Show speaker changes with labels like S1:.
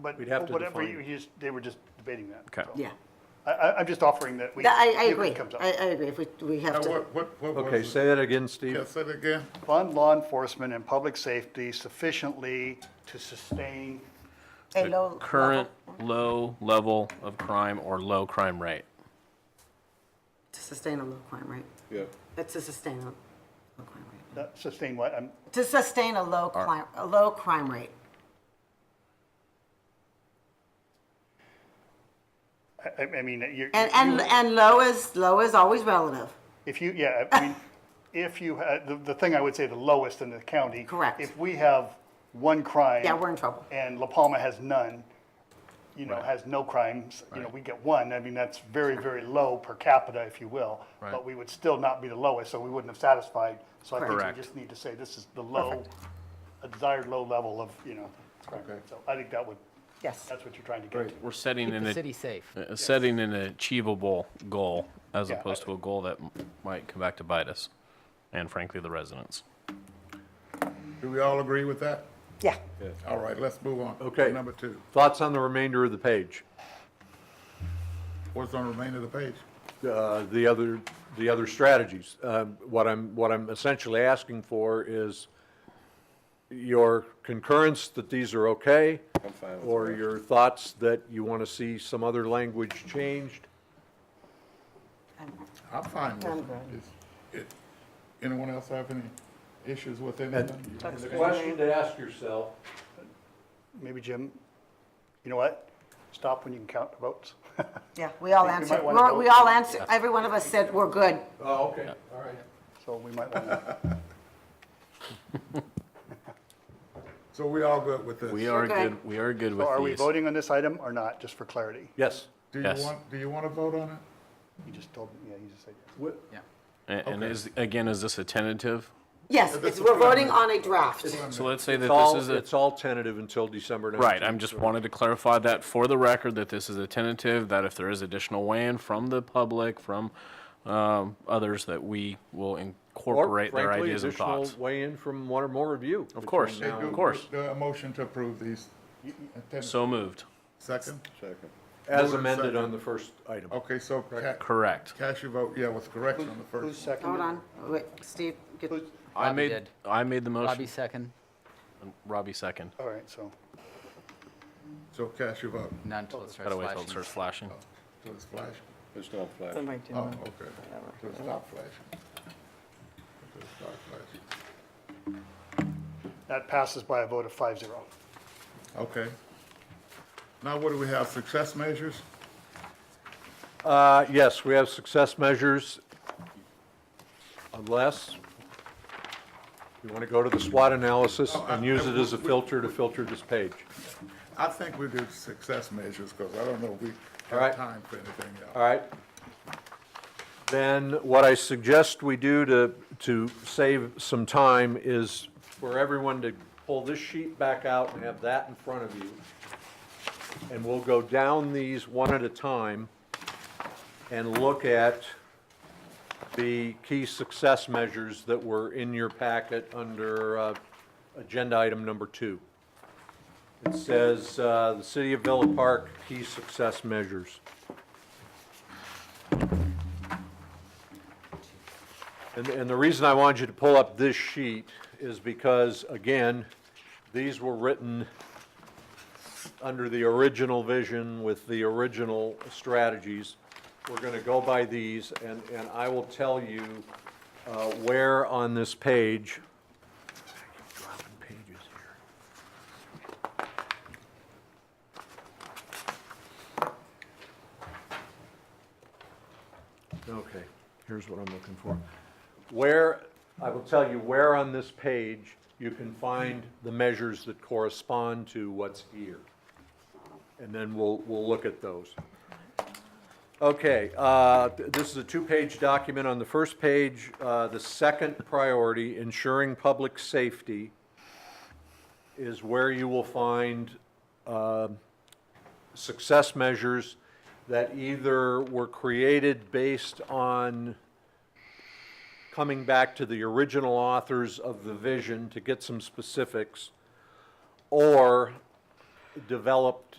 S1: but
S2: We'd have to
S1: whatever,
S2: define-
S1: you- he's, they were just debating that.
S2: Okay.
S1: so.
S3: Yeah,
S1: I, I, I'm just offering that we.
S3: That- I, I
S1: if it
S3: agree,
S1: comes up.
S3: I, I agree, if we, we have
S4: Now,
S3: to,
S4: what, what, what was?
S2: Okay,
S4: it?
S2: say that again, Steve.
S4: Yeah, say it again.
S1: Fund law enforcement and public safety sufficiently to sustain,
S3: a
S5: the
S3: low.
S5: current
S3: level
S5: low level of crime or low crime rate.
S3: To sustain a low crime rate,
S6: Yeah.
S3: that's to sustain a low crime rate.
S1: uh, sustain what, I'm,
S3: To sustain a low crime, a low crime rate,
S1: I, I- I mean, you
S3: and, and, and low is, low is always relative,
S1: If you, yeah, I mean, if you, had- the, the thing I would say, the lowest in the county.
S3: Correct.
S1: If we have one crime.
S3: Yeah, we're in trouble.
S1: And La Palma has none, you know, has no crimes, you know, we get one, I mean, that's very, very low per capita, if you will. But
S5: Right.
S1: we would still not be the lowest, so we wouldn't have satisfied, so I think we
S5: Correct.
S1: just need to say this is the low, a desired low level of, you know. crime. So I think that would,
S3: yes.
S1: that's what you're trying to get to.
S5: We're setting
S7: Keep
S5: an,
S7: the
S5: a-
S7: city safe.
S5: uh, setting an achievable goal as
S1: Yeah, I-
S5: opposed to a goal that m- might come back to bite us and frankly, the residents.
S4: Do we all agree with that?
S3: Yeah.
S4: All right, let's move on.
S2: Okay.
S4: Number two,
S2: Thoughts on the remainder of the page?
S4: what's on the remainder of the page?
S2: uh, the other, the other strategies. Um, What I'm, what I'm essentially asking for is your concurrence that these are okay?
S6: I'm fine with
S2: Or
S6: that.
S2: your thoughts that you want to see some other language changed?
S4: I'm fine with it. It's- it- Anyone else have any issues with anything?
S2: The question to ask yourself.
S1: Maybe Jim, you know what? Stop when you can count the votes.
S3: Yeah, we all
S1: I think we might
S3: answered,
S1: wanna
S3: we're-
S1: vote.
S3: we all answered, every one of us said, we're good,
S2: Oh, okay, all right.
S1: So we might want to.
S4: So we all good with this?
S5: We are
S3: Okay.
S5: good, we are good
S1: So are we
S5: with these.
S1: voting on this item or not, just for clarity?
S2: Yes.
S4: Do you
S5: Yes.
S4: want, do you want to vote on it?
S1: You just told, me. yeah, you just said yes.
S2: Wh-
S5: A- And is, again, is this a tentative?
S3: yes, it's, we're voting on a draft.
S5: So let's say that
S2: It's
S5: this
S2: all,
S5: is a,
S2: it's all tentative until December 19th.
S5: right, I'm just wanted to clarify that for the record, that this is a tentative, that if there is additional weigh-in from the public, from, um, others, that we will
S2: Or
S5: incorporate their
S2: frankly,
S5: ideas and
S2: additional
S5: thoughts.
S2: weigh-in from one or more of you.
S5: Of course,
S2: between now
S5: of
S2: and-
S5: course.
S4: Do a motion to approve these?
S5: So moved.
S4: Second?
S6: Second.
S2: As
S4: Moved and
S2: amended
S4: seconded.
S2: on the first item.
S4: Okay, so ca-
S5: Correct.
S4: cast your vote, yeah, with correction on the
S1: Who's
S4: first.
S1: second?
S3: Hold on, wait, Steve, get-
S5: I
S7: Robbie
S5: made,
S7: did.
S5: I made the
S7: Robbie
S5: motion.
S7: second,
S5: Robbie second.
S1: All right, so,
S4: So cast your vote.
S7: not until it starts
S5: Gotta wait till it
S7: flashing.
S5: starts flashing.
S4: So it's flashing.
S6: It's not flat.
S3: somebody do
S4: Oh,
S3: it.
S4: okay. So it's not flashing. So it's not flashing.
S1: that passes by a vote of five zero.
S4: Okay. Now what do we have, success measures?
S2: Uh, Yes, we have success measures, unless you want to go to the SWOT analysis and use it as a filter to filter this page.
S4: I think we do success measures, because I don't know if we
S2: All right.
S4: have time for anything else.
S2: All right? Then what I suggest we do to, to save some time is for everyone to pull this sheet back out and have that in front of you. And we'll go down these one at a time and look at the key success measures that were in your packet under uh, agenda item number two. It says, uh, the City of Villa Park, key success measures. And, and the reason I wanted you to pull up this sheet is because, again, these were written under the original vision with the original strategies. We're gonna go by these, and, and I will tell you, uh, where on this page. I keep dropping pages here. Okay, here's what I'm looking for. Where, I will tell you where on this page you can find the measures that correspond to what's here. And then we'll, we'll look at those. Okay, uh, th- this is a two-page document. On the first page, uh, the second priority, ensuring public safety, is where you will find um, success measures that either were created based on coming back to the original authors of the vision to get some specifics, or developed